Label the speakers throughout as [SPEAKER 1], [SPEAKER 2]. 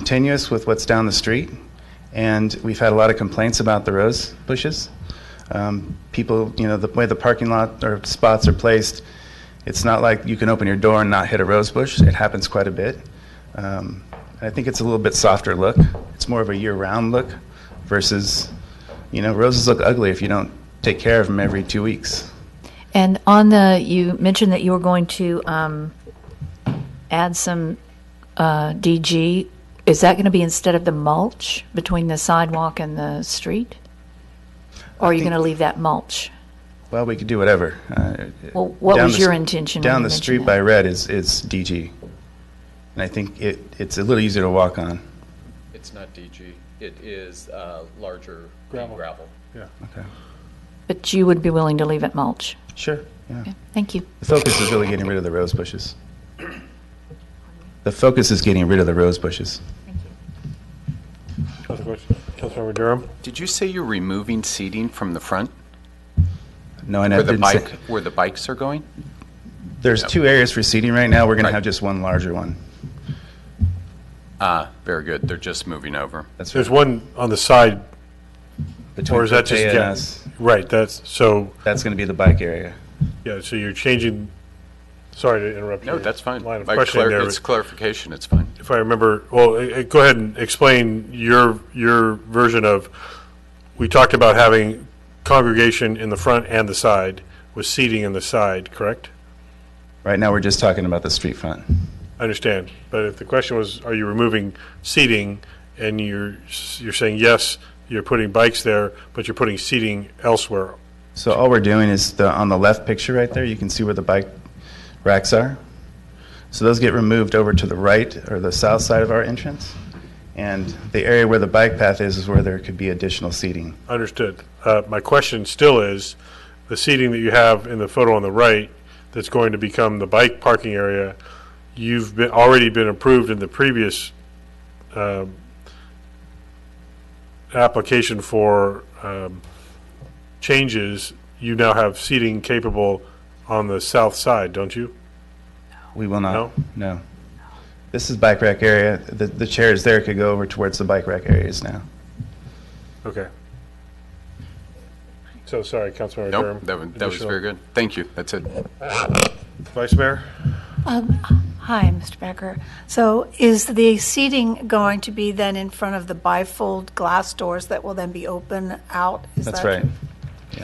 [SPEAKER 1] continuous with what's down the street, and we've had a lot of complaints about the rose bushes. Um, People, you know, the way the parking lot or spots are placed, it's not like you can open your door and not hit a rose bush. It happens quite a bit. Um, and I think it's a little bit softer look. It's more of a year-round look versus, you know, roses look ugly if you don't take care of them every two weeks.
[SPEAKER 2] And on the, you mentioned that you were going to um, add some uh, DG. Is that going to be instead of the mulch between the sidewalk and the street? Or are you going to leave that mulch?
[SPEAKER 1] Well, we could do whatever. Uh,
[SPEAKER 2] Well, what
[SPEAKER 1] down
[SPEAKER 2] was
[SPEAKER 1] the
[SPEAKER 2] your
[SPEAKER 1] s-
[SPEAKER 2] intention? when
[SPEAKER 1] Down the
[SPEAKER 2] you mentioned
[SPEAKER 1] street
[SPEAKER 2] that?
[SPEAKER 1] by red is, is DG. And I think it, it's a little easier to walk on.
[SPEAKER 3] It's not DG. It is uh, larger
[SPEAKER 4] Gravel.
[SPEAKER 3] gravel.
[SPEAKER 1] Okay.
[SPEAKER 2] But you would be willing to leave it mulch?
[SPEAKER 1] Sure. Yeah.
[SPEAKER 2] Okay, Thank you.
[SPEAKER 1] The focus is really getting rid of the rose bushes. The focus is getting rid of the rose bushes.
[SPEAKER 4] Other questions? Councilmember Durham?
[SPEAKER 3] Did you say you're removing seating from the front
[SPEAKER 1] No, and I
[SPEAKER 3] where the
[SPEAKER 1] didn't say,
[SPEAKER 3] bike, where the bikes are going?
[SPEAKER 1] there's two areas for seating right now. We're going to
[SPEAKER 3] Right.
[SPEAKER 1] have just one larger one.
[SPEAKER 3] Ah, very good. They're just moving over.
[SPEAKER 1] That's
[SPEAKER 4] There's one on the side,
[SPEAKER 1] between
[SPEAKER 4] or is that just,
[SPEAKER 1] Cortea and
[SPEAKER 4] yeah,
[SPEAKER 1] us.
[SPEAKER 4] right, that's, so,
[SPEAKER 1] That's going to be the bike area.
[SPEAKER 4] yeah, so you're changing, sorry to interrupt.
[SPEAKER 3] No,
[SPEAKER 4] your
[SPEAKER 3] that's fine.
[SPEAKER 4] Line of
[SPEAKER 3] By
[SPEAKER 4] questioning
[SPEAKER 3] clar-
[SPEAKER 4] there,
[SPEAKER 3] It's
[SPEAKER 4] but
[SPEAKER 3] clarification. It's fine.
[SPEAKER 4] if I remember, well, eh, eh, go ahead and explain your, your version of, we talked about having congregation in the front and the side, with seating in the side, correct?
[SPEAKER 1] Right now, we're just talking about the street front.
[SPEAKER 4] I understand, but if the question was, are you removing seating, and you're, you're saying, yes, you're putting bikes there, but you're putting seating elsewhere,
[SPEAKER 1] So all we're doing is the, on the left picture right there, you can see where the bike racks are. So those get removed over to the right or the south side of our entrance. And the area where the bike path is, is where there could be additional seating.
[SPEAKER 4] Understood. Uh, My question still is, the seating that you have in the photo on the right, that's going to become the bike parking area, you've been, already been approved in the previous um, application for um, changes, you now have seating capable on the south side, don't you?
[SPEAKER 1] We will not.
[SPEAKER 4] No?
[SPEAKER 1] No. This is bike rack area. The, the chairs there could go over towards the bike rack areas now.
[SPEAKER 4] Okay. So, sorry, Councilmember Durham.
[SPEAKER 3] Nope, that was, that was
[SPEAKER 4] Additional-
[SPEAKER 3] very good. Thank you. That's it.
[SPEAKER 4] Vice Mayor?
[SPEAKER 5] Um, Hi, Mr. Becker. So is the seating going to be then in front of the bifold glass doors that will then be open out? Is
[SPEAKER 1] That's
[SPEAKER 5] that-
[SPEAKER 1] right.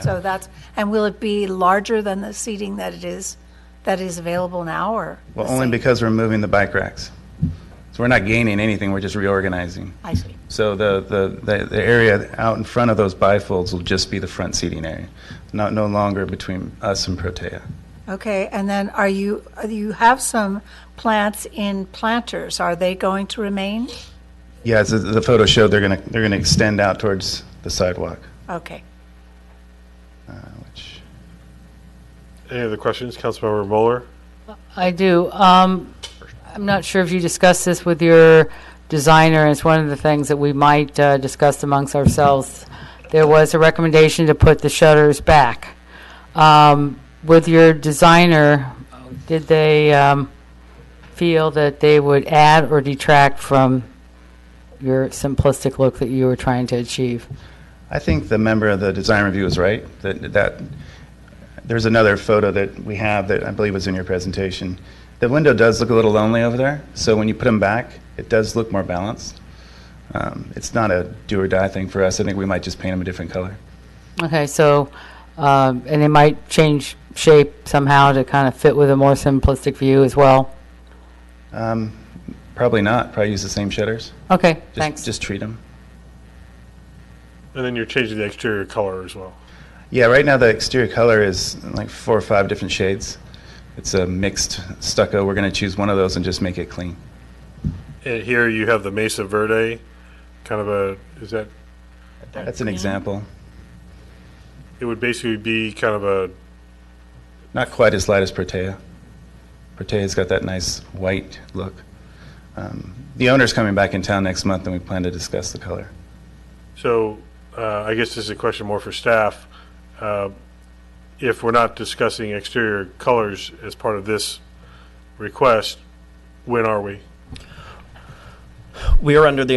[SPEAKER 5] So that's, and will it be larger than the seating that it is, that is available now, or? the
[SPEAKER 1] Well, only
[SPEAKER 5] same?
[SPEAKER 1] because we're moving the bike racks. So we're not gaining anything, we're just reorganizing.
[SPEAKER 5] I see.
[SPEAKER 1] So the, the, the, the area out in front of those bifolds will just be the front seating area, not, no longer between us and Protea.
[SPEAKER 5] Okay, and then are you, uh, you have some plants in planters. Are they going to remain?
[SPEAKER 1] Yeah, as the- the photo showed, they're gonna, they're gonna extend out towards the sidewalk,
[SPEAKER 5] Okay.
[SPEAKER 1] uh, which,
[SPEAKER 4] Any other questions? Councilmember Mueller?
[SPEAKER 6] I do. Um, I'm not sure if you discussed this with your designer. It's one of the things that we might uh, discuss amongst ourselves. There was a recommendation to put the shutters back. Um, With your designer, did they um, feel that they would add or detract from your simplistic look that you were trying to achieve?
[SPEAKER 1] I think the member of the design review is right, that, that, there's another photo that we have that I believe was in your presentation. The window does look a little lonely over there, so when you put them back, it does look more balanced. Um, It's not a do or die thing for us, I think we might just paint them a different color.
[SPEAKER 6] Okay, so, um, and they might change shape somehow to kind of fit with a more simplistic view as well?
[SPEAKER 1] Um, Probably not, probably use the same shutters.
[SPEAKER 6] Okay,
[SPEAKER 1] Just-
[SPEAKER 6] thanks.
[SPEAKER 1] Just treat them.
[SPEAKER 4] And then you're changing the exterior color as well.
[SPEAKER 1] Yeah, right now the exterior color is like four or five different shades. It's a mixed stucco. We're going to choose one of those and just make it clean.
[SPEAKER 4] And here you have the Mesa Verde, kind of a, is that,
[SPEAKER 1] That's an example.
[SPEAKER 4] it would basically be kind of a,
[SPEAKER 1] Not quite as light as Protea. Protea's got that nice white look. Um, the owner's coming back in town next month and we plan to discuss the color.
[SPEAKER 4] so uh, I guess this is a question more for staff. Uh, If we're not discussing exterior colors as part of this request, when are we?
[SPEAKER 7] We are under the